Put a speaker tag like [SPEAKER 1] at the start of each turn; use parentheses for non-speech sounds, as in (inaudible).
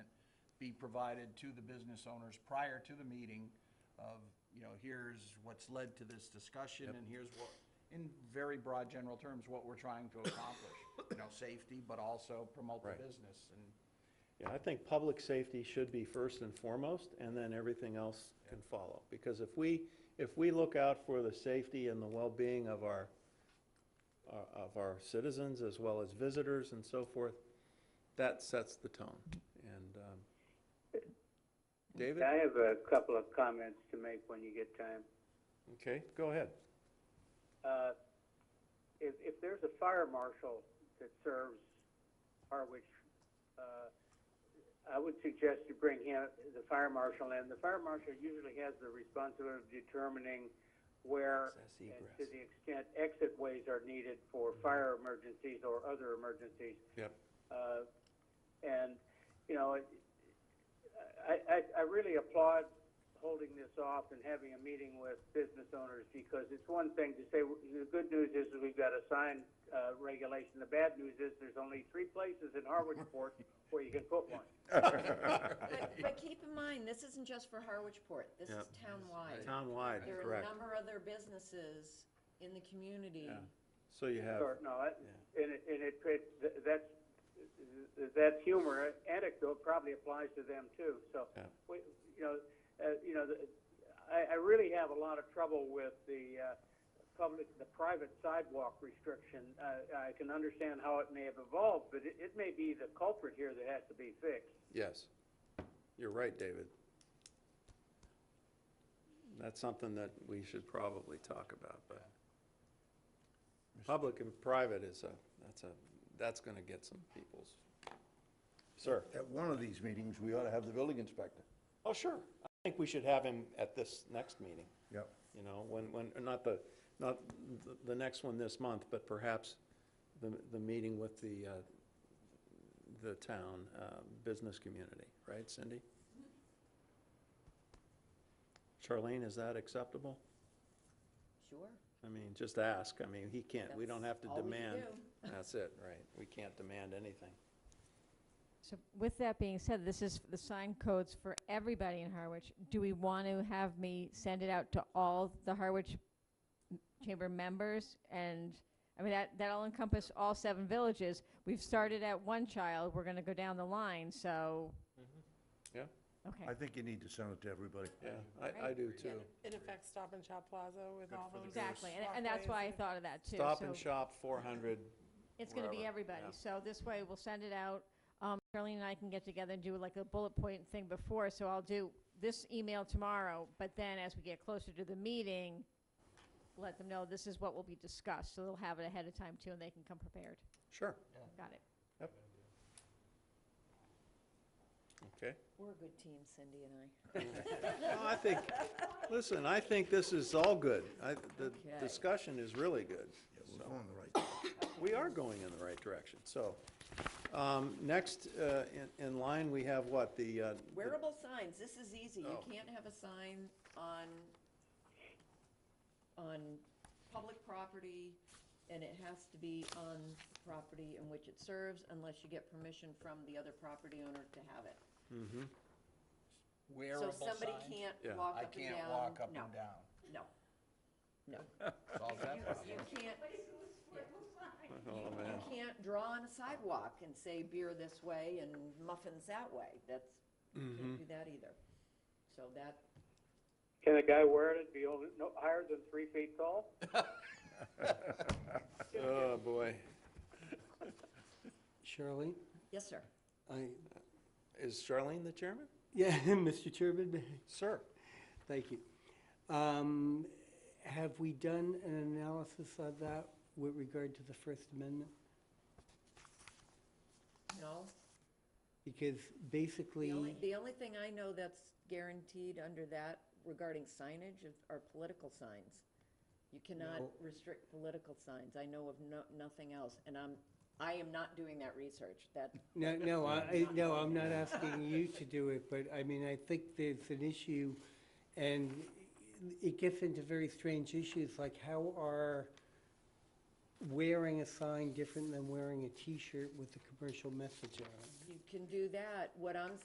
[SPEAKER 1] be provided to the business owners prior to the meeting of, you know, here's what's led to this discussion, and here's what, in very broad general terms, what we're trying to accomplish. You know, safety, but also promote the
[SPEAKER 2] Right.
[SPEAKER 1] business, and
[SPEAKER 3] Yeah, I think public safety should be first and foremost, and then everything else can follow. Because if we, if we look out for the safety and the well-being of our, uh, of our citizens as well as visitors and so forth, that sets the tone. And, um, David?
[SPEAKER 4] I have a couple of comments to make when you get time.
[SPEAKER 3] Okay, go ahead.
[SPEAKER 4] Uh, If, if there's a fire marshal that serves Harwich, uh, I would suggest you bring him, the fire marshal in. The fire marshal usually has the responsibility of determining where
[SPEAKER 3] Access
[SPEAKER 4] and
[SPEAKER 3] egress.
[SPEAKER 4] to the extent exit ways are needed for fire emergencies or other emergencies.
[SPEAKER 3] (laughs) Yep.
[SPEAKER 4] Uh, And, you know, it- I, I, I really applaud holding this off and having a meeting with business owners because it's one thing to say, the good news is we've got a signed uh, regulation. The bad news is there's only three places in Harwichport where you can put one.
[SPEAKER 3] (laughs)
[SPEAKER 5] But, but keep in mind, this isn't just for Harwichport, this is
[SPEAKER 3] Yep.
[SPEAKER 5] townwide.
[SPEAKER 3] Townwide,
[SPEAKER 5] There are a
[SPEAKER 3] correct.
[SPEAKER 5] number of other businesses in the community.
[SPEAKER 3] Yeah. So you have,
[SPEAKER 4] Or, no, it- and it, and it, it- th- that's, th- that humor anecdote probably applies to them too. So,
[SPEAKER 3] Yeah.
[SPEAKER 4] we, you know, uh, you know, the- I, I really have a lot of trouble with the, uh, public, the private sidewalk restriction. Uh, I can understand how it may have evolved, but it, it may be the culprit here that has to be fixed.
[SPEAKER 3] yes. You're right, David. That's something that we should probably talk about, but public and private is a, that's a, that's gonna get some people's. Sir?
[SPEAKER 6] At one of these meetings, we ought to have the building inspector.
[SPEAKER 3] Oh, sure. I think we should have him at this next meeting,
[SPEAKER 6] Yep.
[SPEAKER 3] you know, when, when, not the, not the, the next one this month, but perhaps the, the meeting with the, uh, the town, uh, business community, right, Cindy? Charlene, is that acceptable?
[SPEAKER 5] Sure.
[SPEAKER 3] I mean, just ask. I mean, he can't, we don't have to
[SPEAKER 5] That's all we can
[SPEAKER 3] demand.
[SPEAKER 5] do. (laughs)
[SPEAKER 3] That's it, right. We can't demand anything.
[SPEAKER 7] So with that being said, this is the sign codes for everybody in Harwich. Do we want to have me send it out to all the Harwich m- Chamber members? And, I mean, that, that'll encompass all seven villages. We've started at one child, we're gonna go down the line, so,
[SPEAKER 3] Yeah,
[SPEAKER 7] okay.
[SPEAKER 6] I think you need to send it to everybody.
[SPEAKER 3] yeah, I, I do too.
[SPEAKER 8] It affects Stop and Shop Plaza with all those.
[SPEAKER 7] Exactly, and, and that's why I
[SPEAKER 8] walkways.
[SPEAKER 7] thought of that too.
[SPEAKER 3] Stop and
[SPEAKER 7] So
[SPEAKER 3] shop, four hundred.
[SPEAKER 7] It's gonna be
[SPEAKER 3] wherever,
[SPEAKER 7] everybody,
[SPEAKER 3] yeah.
[SPEAKER 7] so this way we'll send it out. Um, Charlene and I can get together and do like a bullet point thing before, so I'll do this email tomorrow, but then as we get closer to the meeting, let them know this is what will be discussed, so they'll have it ahead of time too, and they can come prepared.
[SPEAKER 3] Sure.
[SPEAKER 7] Got it.
[SPEAKER 3] Okay.
[SPEAKER 5] We're a good team, Cindy and I.
[SPEAKER 3] No, I think, listen, I think this is all good. I, the
[SPEAKER 5] Okay.
[SPEAKER 3] discussion is really good.
[SPEAKER 6] We're going the right.
[SPEAKER 3] We are going in the right direction, so. Um, next, uh, in, in line, we have what, the, uh, the-
[SPEAKER 5] Wearable signs, this is easy. You
[SPEAKER 3] Oh.
[SPEAKER 5] can't have a sign on, on public property, and it has to be on property in which it serves unless you get permission from the other property owner to have it.
[SPEAKER 1] wearable
[SPEAKER 5] So somebody
[SPEAKER 1] signs.
[SPEAKER 3] Yeah.
[SPEAKER 5] can't walk
[SPEAKER 1] I
[SPEAKER 5] up and down.
[SPEAKER 1] can't walk up
[SPEAKER 5] No,
[SPEAKER 1] and down.
[SPEAKER 5] No, no.
[SPEAKER 1] Solve
[SPEAKER 5] (laughs)
[SPEAKER 1] that problem.
[SPEAKER 5] You can't,
[SPEAKER 3] oh, man.
[SPEAKER 5] you can't draw on a sidewalk and say beer this way and muffins that way. That's, you can't do that either. So that,
[SPEAKER 4] Can a guy wear it, and be only, no, higher than three feet tall?
[SPEAKER 3] Oh, boy. Charlene?
[SPEAKER 5] yes, sir.
[SPEAKER 9] I,
[SPEAKER 3] Is Charlene the chairman?
[SPEAKER 9] yeah, (laughs) Mr. Chairman,
[SPEAKER 3] Sir?
[SPEAKER 9] thank you. Um, Have we done an analysis of that with regard to the First Amendment?
[SPEAKER 5] No,
[SPEAKER 9] Because
[SPEAKER 5] The only,
[SPEAKER 9] basically,
[SPEAKER 5] the only thing I know that's guaranteed under that regarding signage is- are political signs. You cannot restrict political signs. I know of no, nothing else, and I'm, I am not doing that research. That,
[SPEAKER 9] no, no, I, I- no, I'm not asking you to do it, but I mean, I think there's an issue, and it gets into very strange issues, like how are wearing a sign different than wearing a T-shirt with a commercial message on it?
[SPEAKER 5] you can do that. What I'm